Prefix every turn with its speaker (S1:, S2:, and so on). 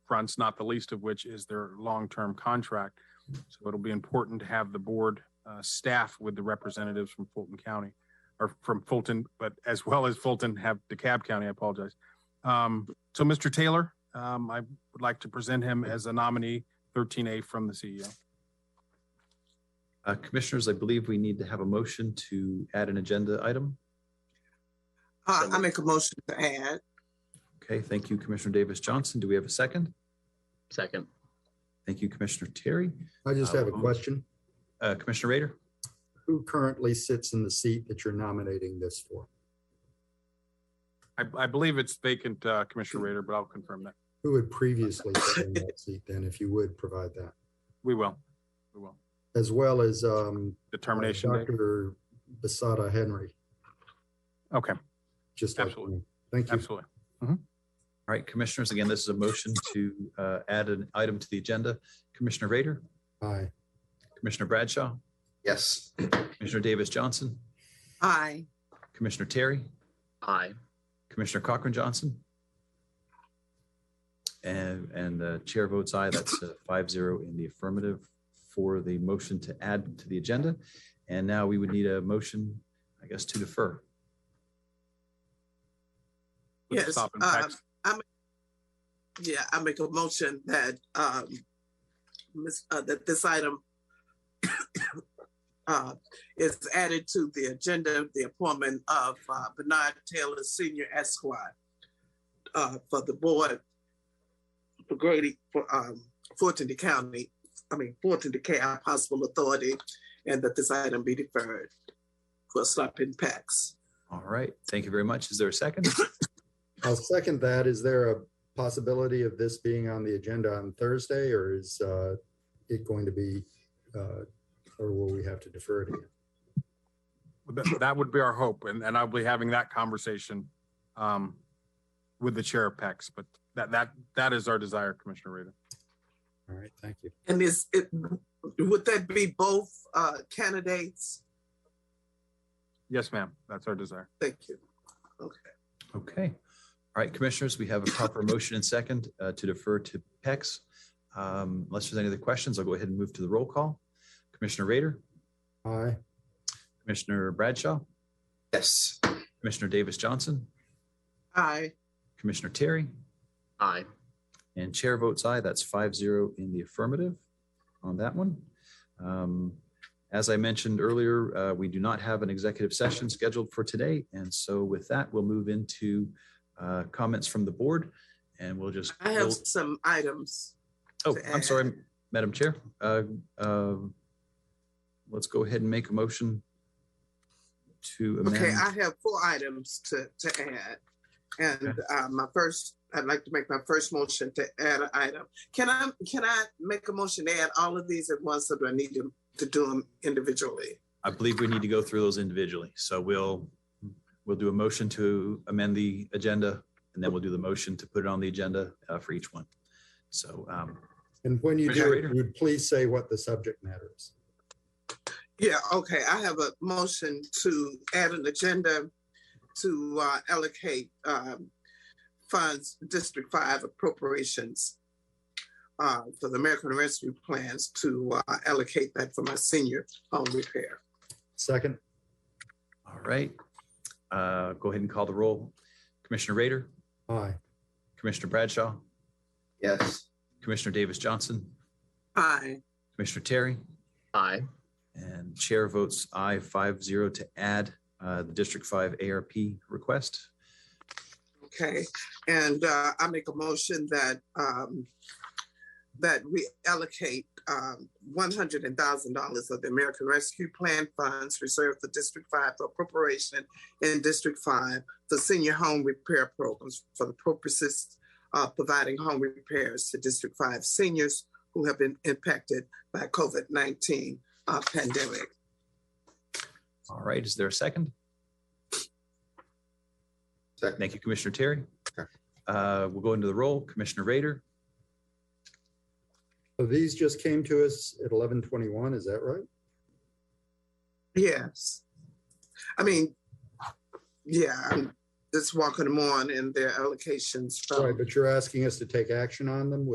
S1: fronts, not the least of which is their long-term contract. So it'll be important to have the board uh, staff with the representatives from Fulton County or from Fulton, but as well as Fulton have DeKalb County, I apologize. Um, So Mr. Taylor, um, I would like to present him as a nominee thirteen A from the E CEO.
S2: Uh, Commissioners, I believe we need to have a motion to add an agenda item.
S3: Uh, I make a motion to add.
S2: Okay, thank you, Commissioner Davis Johnson. Do we have a second?
S4: Second.
S2: Thank you, Commissioner Terry.
S5: I just
S2: Uh,
S5: have a
S2: um,
S5: question.
S2: Uh, Commissioner Rader?
S5: Who currently sits in the seat that you're nominating this for?
S1: I, I believe it's vacant, uh, Commissioner Rader, but I'll confirm that.
S5: Who had previously sit in that seat then, if you would provide that?
S1: We will. We will.
S5: As well as um,
S1: Determination day.
S5: Dr. Basada Henry,
S1: Okay,
S5: just like.
S1: Absolutely.
S5: me. Thank you.
S1: absolutely.
S2: All right, Commissioners, again, this is a motion to uh, add an item to the agenda. Commissioner Rader,
S5: Aye.
S2: Commissioner Bradshaw,
S3: Yes.
S2: Commissioner Davis Johnson,
S3: Aye.
S2: Commissioner Terry,
S4: Aye.
S2: Commissioner Cochran Johnson. And, and the chair votes aye. That's uh, five zero in the affirmative for the motion to add to the agenda. And now we would need a motion, I guess, to defer.
S1: With the
S3: Yes,
S1: stop and
S3: uh,
S1: text.
S3: Yeah, I make a motion that, um, miss, uh, that this item uh, is added to the agenda, the appointment of, uh, Bernard Taylor Senior Esquire uh, for the board for Grady, for, um, Fulton County, I mean, Fulton DeKalb Hospital Authority, and that this item be deferred for stop impacts.
S2: All right. Thank you very much. Is there a second?
S5: I'll second that. Is there a possibility of this being on the agenda on Thursday or is uh, it going to be, uh, or will we have to defer it again?
S1: That, that would be our hope, and, and I'll be having that conversation, um, with the chair of PEX, but that, that, that is our desire, Commissioner Rader.
S5: All right, thank you.
S3: And is it, would that be both uh, candidates?
S1: Yes, ma'am, that's our desire.
S3: Thank you.
S2: Okay. All right, Commissioners, we have a proper motion and second uh, to defer to PEX. Um, Unless there's any other questions, I'll go ahead and move to the roll call. Commissioner Rader,
S5: Aye.
S2: Commissioner Bradshaw,
S4: Yes.
S2: Commissioner Davis Johnson,
S3: Aye.
S2: Commissioner Terry,
S4: Aye.
S2: And chair votes aye. That's five zero in the affirmative on that one. Um, As I mentioned earlier, uh, we do not have an executive session scheduled for today. And so with that, we'll move into uh, comments from the board and we'll just.
S3: I have some items.
S2: Oh, I'm sorry, Madam Chair. Uh, um, Let's go ahead and make a motion to
S3: Okay,
S2: amend.
S3: I have four items to, to add. And uh, my first, I'd like to make my first motion to add an item. Can I, can I make a motion to add all of these at once or do I need to, to do them individually?
S2: I believe we need to go through those individually. So we'll, we'll do a motion to amend the agenda and then we'll do the motion to put it on the agenda uh, for each one. So, um,
S5: And when you
S2: Commissioner
S5: do,
S2: Rader?
S5: you would please say what the subject matter is.
S3: Yeah, okay, I have a motion to add an agenda to uh, allocate um, funds, District Five appropriations uh, for the American Rescue Plans to uh, allocate that for my senior home repair.
S5: Second,
S2: all right. Uh, Go ahead and call the roll. Commissioner Rader,
S5: aye.
S2: Commissioner Bradshaw,
S4: Yes.
S2: Commissioner Davis Johnson,
S3: Aye,
S2: Commissioner Terry,
S4: Aye.
S2: and chair votes aye five zero to add uh, the District Five ARP request.
S3: okay, and uh, I make a motion that um, that we allocate um, one hundred and thousand dollars of the American Rescue Plan funds reserved for District Five for appropriation in District Five for senior home repair programs for the purposes of providing home repairs to District Five seniors who have been impacted by COVID nineteen uh, pandemic.
S2: All right, is there a second?
S4: Second.
S2: Thank you, Commissioner Terry. Uh, We'll go into the roll. Commissioner Rader,
S5: So these just came to us at eleven twenty-one, is that right?
S3: Yes. I mean, yeah, I'm just walking them on and their allocations from.
S5: Right, but you're asking us to take action on them